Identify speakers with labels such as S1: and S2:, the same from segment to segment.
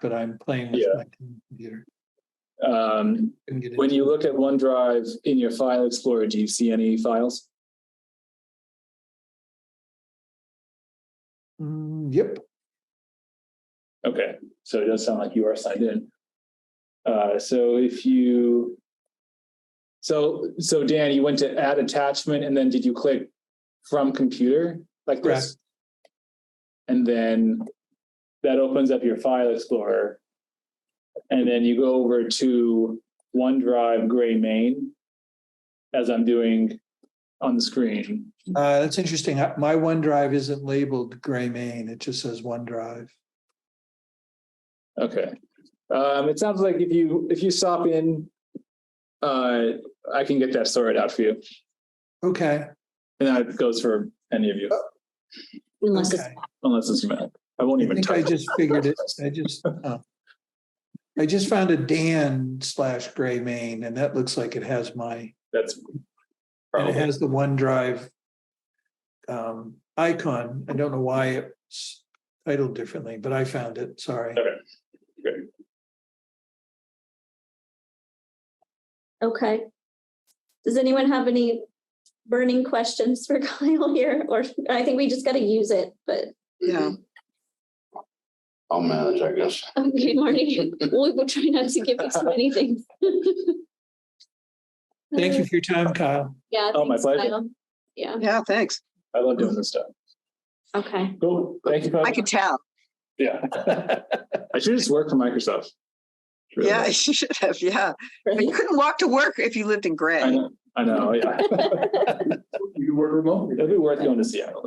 S1: but I'm playing with
S2: Yeah.
S1: my computer.
S2: Um,
S1: Couldn't get
S2: when
S1: into-
S2: you look at OneDrive in your file explorer, do you see any files?
S1: Mm, Yep,
S2: Okay, so it does sound like you are signed in. Uh, so if you, so, so Dan, you went to add attachment and then did you click from computer like this? And then that opens up your file explorer. And then you go over to OneDrive Gray Main as I'm doing on the screen.
S1: uh, that's interesting. Uh, My OneDrive isn't labeled gray main. It just says OneDrive.
S2: Okay. Um, it sounds like if you, if you stop in, uh, I can get that sorted out for you.
S1: Okay,
S2: And that goes for any of you,
S3: Unless it's,
S1: okay.
S2: unless it's Matt. I won't
S1: I
S2: even
S1: think I
S2: touch.
S1: just figured it. I just, uh, I just found a Dan slash gray main and that looks like it has my,
S2: That's
S1: and it
S2: probably,
S1: has the OneDrive um, icon. I don't know why it's titled differently, but I found it. Sorry.
S3: okay. Does anyone have any burning questions for Kyle here? Or I think we just got to use it, but
S4: Yeah.
S5: I'll manage, I guess.
S3: okay, Marty, we'll, we'll try not to give you too many things.
S1: Thank you for your time, Kyle.
S3: Yeah.
S2: Oh, my
S3: thanks,
S2: pleasure.
S3: Kyle. Yeah,
S4: Yeah, thanks.
S2: I love doing this stuff.
S3: okay.
S2: Cool. Thank you. Kyle.
S4: I can tell.
S2: Yeah. I should just work for Microsoft. Really.
S4: Yeah, you should have, yeah. But you couldn't walk to work if you lived in
S2: I
S4: Gray.
S2: know, I know, yeah. You can work remotely. It'd be worth going to Seattle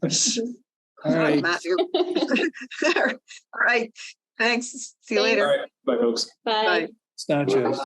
S2: though.
S1: All right.
S4: Matthew. All right, thanks. See you
S3: Thanks.
S4: later.
S2: All right, bye folks.
S3: Bye.
S4: Bye.
S1: It's nachos.